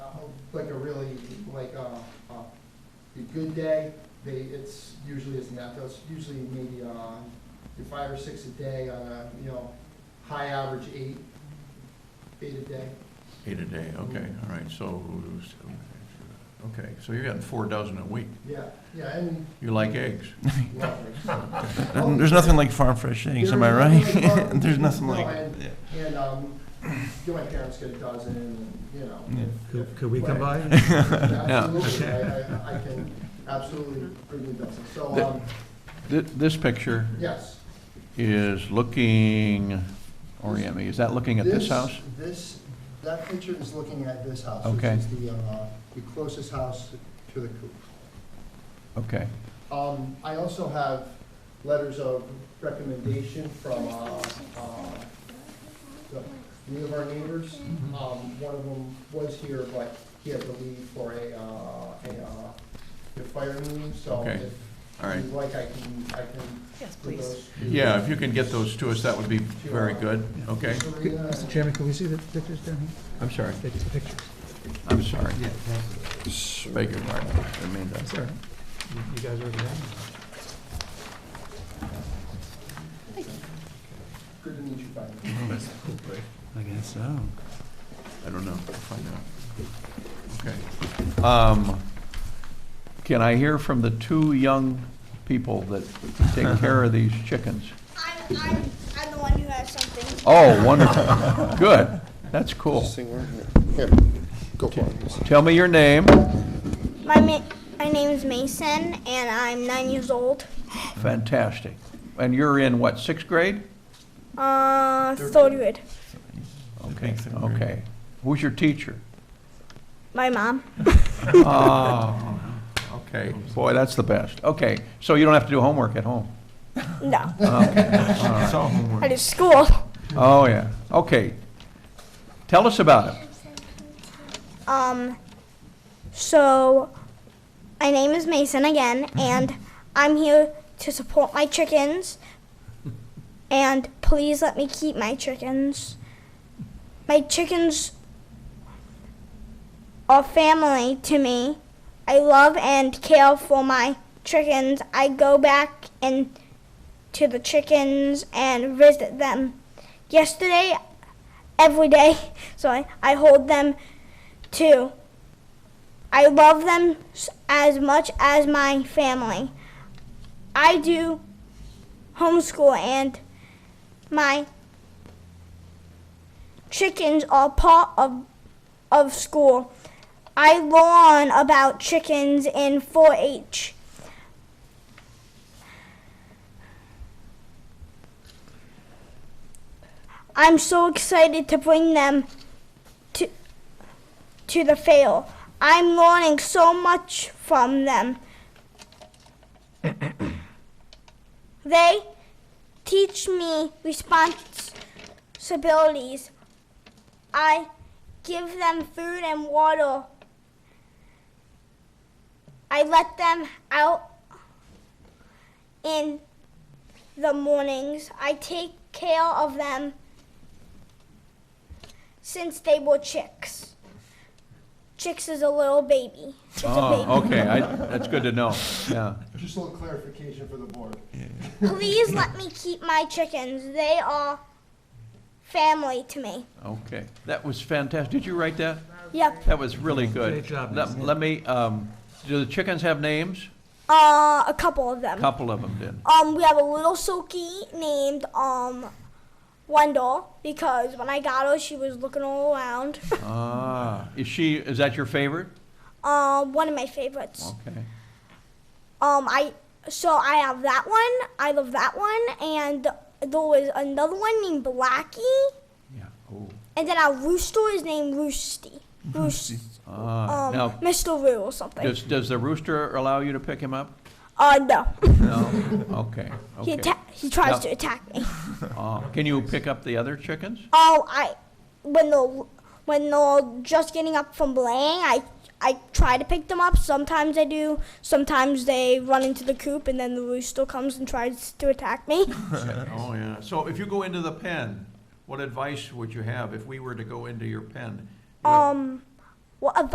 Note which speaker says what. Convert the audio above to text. Speaker 1: Uh, like a really, like, uh, uh, a good day, they, it's usually isn't that, that's usually maybe, uh, five or six a day, uh, you know, high average eight, eight a day.
Speaker 2: Eight a day, okay, all right, so, okay, so you're getting four dozen a week.
Speaker 1: Yeah, yeah, and
Speaker 2: You like eggs.
Speaker 1: lovely.
Speaker 3: There's nothing like farm fresh eggs, am I right? There's nothing like, yeah.
Speaker 1: And, um, you know, my parents get a dozen, and, you know.
Speaker 3: Yeah.
Speaker 1: if-
Speaker 4: Could- could we come by?
Speaker 1: Absolutely, I, I, I can absolutely bring you a dozen, so, um,
Speaker 2: Th- This picture
Speaker 1: yes.
Speaker 2: is looking, orient me, is that looking at this house?
Speaker 1: This, that picture is looking at this house.
Speaker 2: Okay.
Speaker 1: Which is the, uh, the closest house to the coop.
Speaker 2: Okay,
Speaker 1: Um, I also have letters of recommendation from, uh, uh, the- three of our neighbors.
Speaker 2: Mm-hmm.
Speaker 1: Um, one of them was here, but he had to leave for a, uh, a, uh, a fire meeting, so
Speaker 2: Okay.
Speaker 1: if
Speaker 2: all right.
Speaker 1: you'd like, I can, I can.
Speaker 5: Yes,
Speaker 1: put
Speaker 5: please.
Speaker 1: those-
Speaker 2: Yeah, if you can get those to us, that would be very good, okay?
Speaker 4: Could- Mr. Chairman, can we see the pictures down here?
Speaker 2: I'm sorry,
Speaker 4: Take the pictures.
Speaker 2: I'm sorry. Beg your pardon, didn't mean that.
Speaker 4: Sorry. You you guys are over there?
Speaker 1: Good to meet you, Brian.
Speaker 3: I guess so.
Speaker 2: I don't know, We'll find out. Okay. Um, Can I hear from the two young people that take care of these chickens?
Speaker 6: I'm, I'm, I'm the one who has something.
Speaker 2: Oh, wonderful, good, that's cool. Tell me your name,
Speaker 6: My ma- my name is Mason, and I'm nine years old.
Speaker 2: fantastic. And you're in what, sixth grade?
Speaker 6: Uh, third grade.
Speaker 2: Okay,
Speaker 3: Sixth grade.
Speaker 2: okay. Who's your teacher?
Speaker 6: My mom.
Speaker 2: Oh, okay, boy, that's the best. Okay, so you don't have to do homework at home?
Speaker 6: No,
Speaker 3: It's all homework.
Speaker 6: I do school.
Speaker 2: Oh, yeah, okay. Tell us about it.
Speaker 6: Um, so my name is Mason again, and I'm here to support my chickens. And please let me keep my chickens. My chickens are family to me. I love and care for my chickens. I go back and to the chickens and visit them. Yesterday, every day, so I, I hold them Two, I love them s- as much as my family. I do homeschool and my chickens are part of of school. I learn about chickens in 4-H. I'm so excited to bring them to to the fail. I'm learning so much from them. they teach me responsibilities. I give them food and water. I let them out in the mornings. I take care of them since they were chicks. Chicks is a little baby. Chick's
Speaker 2: Oh,
Speaker 6: a baby.
Speaker 2: okay, I, that's good to know, yeah.
Speaker 1: Just a little clarification for the board.
Speaker 6: Please let me keep my chickens. They are family to me.
Speaker 2: Okay, that was fantastic. Did you write that?
Speaker 6: Yep.
Speaker 2: That was really good.
Speaker 4: Great job,
Speaker 2: Let-
Speaker 4: Nancy.
Speaker 2: Let me, um, do the chickens have names?
Speaker 6: Uh, a couple of them.
Speaker 2: Couple of them did.
Speaker 6: Um, we have a little silky named um Wendell because when I got her, she was looking all around.
Speaker 2: Ah, is she, is that your favorite?
Speaker 6: um, one of my favorites.
Speaker 2: Okay,
Speaker 6: Um, I so I have that one. I love that one, and there was another one named Blackie,
Speaker 2: yeah, oh.
Speaker 6: and then our rooster is named Roosty. Roosty.
Speaker 2: Ah,
Speaker 6: Um,
Speaker 2: now,
Speaker 6: Mr. Roo or something.
Speaker 2: does, does the rooster allow you to pick him up?
Speaker 6: uh, no.
Speaker 2: No, okay, okay.
Speaker 6: He atta- he tries
Speaker 2: Now-
Speaker 6: to attack me.
Speaker 2: Ah, Can you pick up the other chickens?
Speaker 6: Oh, I when they're when they're just getting up from laying, I I try to pick them up. Sometimes I do. Sometimes they run into the coop, and then the rooster comes and tries to attack me.
Speaker 2: Oh, yeah. So if you go into the pen, what advice would you have if we were to go into your pen? What-
Speaker 6: um, what